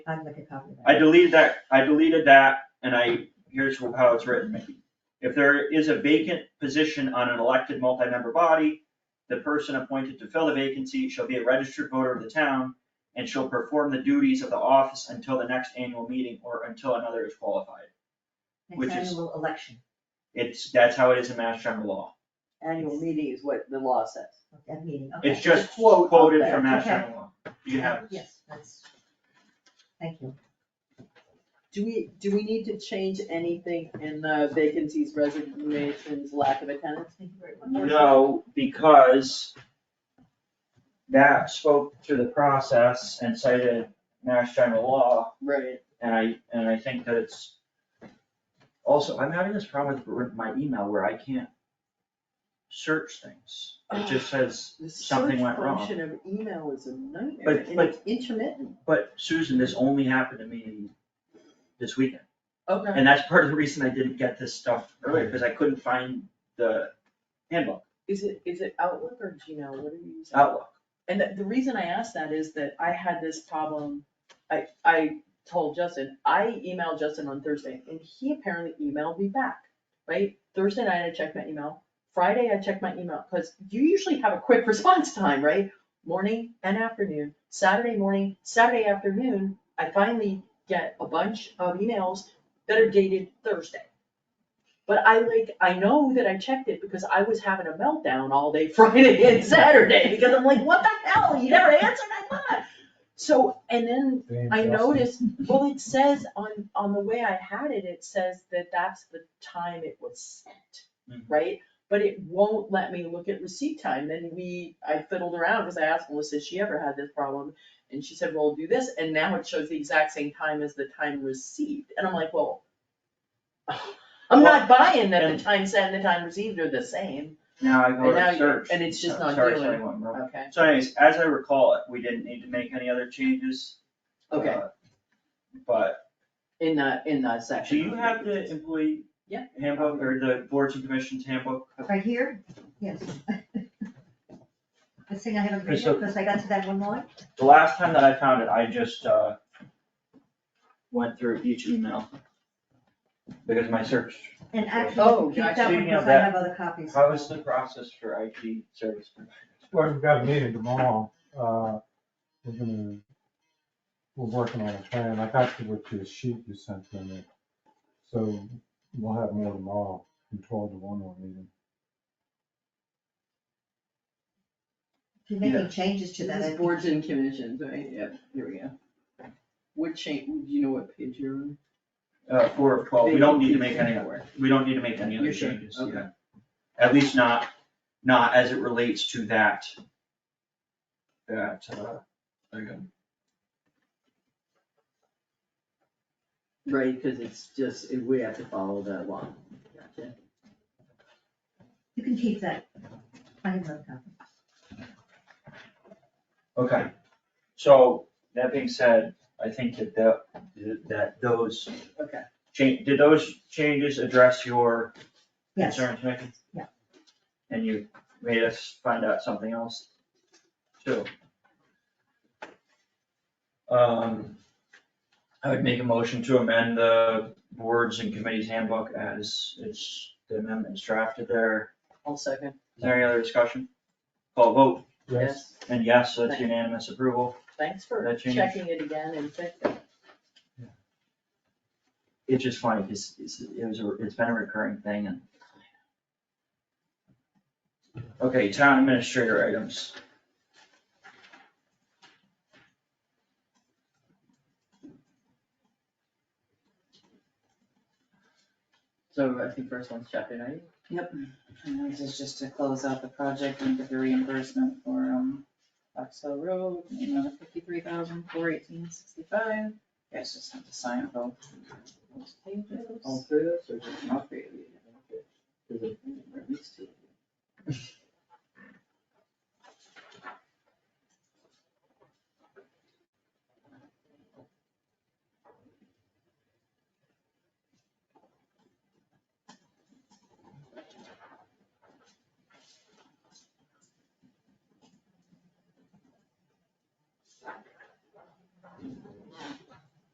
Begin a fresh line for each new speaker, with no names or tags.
I'd like a copy of that.
I deleted that, I deleted that, and I, here's how it's written, Mickey. If there is a vacant position on an elected multi-member body, the person appointed to fill the vacancy shall be a registered voter of the town and shall perform the duties of the office until the next annual meeting or until another is qualified. which
Next
is-
annual election,
It's, that's how it is in Mass General Law.
Annual meeting is what the law says.
that meeting, okay.
It's just
Quote up
quoted
there.
from Mass
Okay.
General Law. You can have this.
Yes, that's, thank you.
Do we, do we need to change anything in the vacancies, resignations, lack of attendance?
Thank you very much.
No, because that spoke through the process and cited Mass General Law,
Right.
And I, and I think that it's, also, I'm having this problem with r- my email where I can't search things. It just says,
The
Something went wrong.
Search function of email is a nightmare
But-
and
but-
it's intermittent.
but Susan, this only happened to me this weekend.
Okay.
And that's part of the reason I didn't get this stuff earlier, because I couldn't find the handbook,
Is it, is it Outlook or Gmail? What are you using?
Outlook.
And the, the reason I asked that is that I had this problem, I, I told Justin, I emailed Justin on Thursday, and he apparently emailed me back, right? Thursday night I checked my email, Friday I checked my email, cause you usually have a quick response time, right? Morning and afternoon, Saturday morning, Saturday afternoon, I finally get a bunch of emails that are dated Thursday. But I like, I know that I checked it because I was having a meltdown all day Friday and Saturday, because I'm like, what the hell, you never answered my phone. So, and then I noticed, well, it says on, on the way I had it, it says that that's the time it was sent,
Mhm.
right? But it won't let me look at receipt time, then we, I fiddled around, cause I asked Melissa if she ever had this problem, and she said, well, do this, and now it shows the exact same time as the time received, and I'm like, well, I'm not buying that
and-
the time sent and the time received are the same,
Now I go
And now
to
you-
search.
and it's just
So-
not
sorry,
doing
sorry,
it.
one more.
okay,
So anyways, as I recall it, we didn't need to make any other changes.
okay,
uh, But
in the, in the
Do
section.
you have the employee
Yeah.
handbook or the boards and commissions handbook?
Right here, yes. The thing I haven't read
So-
because I got to that one line.
The last time that I found it, I just, uh, went through each email. Because my search,
And
Oh,
actually, keep
gotcha.
that one
Speaking of
because I
that,
have other copies.
how is the process for IT service? providers?
Well, we've got a meeting tomorrow, uh, we're gonna, we're working on a plan, I got to what your sheet you sent to me. So we'll have more tomorrow, from twelve to one on meeting.
If you're making changes to that,
This
I
is boards and commissions, right, yeah, here we go. What change, do you know what page you're on?
Uh, four of twelve, we don't need to make any, we don't need to make any other
You're sure?
changes,
Okay.
yeah. At least not, not as it relates to that. That, uh, there you go.
Right, cause it's just, we have to follow that law. Gotcha.
you can keep that. I have another copy.
Okay, so that being said, I think that the, that those.
Okay.
Change, did those changes address your
Yes,
concerns, Mickey?
Yeah.
And you made us find out something else too. Um, I would make a motion to amend the boards and committees handbook as it's, the amendments drafted there.
I'll second.
Is there any other discussion? Call vote,
Yes.
and yes, that's unanimous approval.
Thanks for
That change.
checking it again and fixing. it.
it's just funny, because it's, it was, a- it's been a recurring thing and. Okay, town administrator items.
So I think first one's chapter ninety.
And this is just to close out the project and get the reimbursement for, um, Fox Hill Road, you know, fifty-three thousand, four eighteen, sixty-five. You guys just have to sign both those pages.
All through this or just?
All three of you.
Is it-
Or at least two.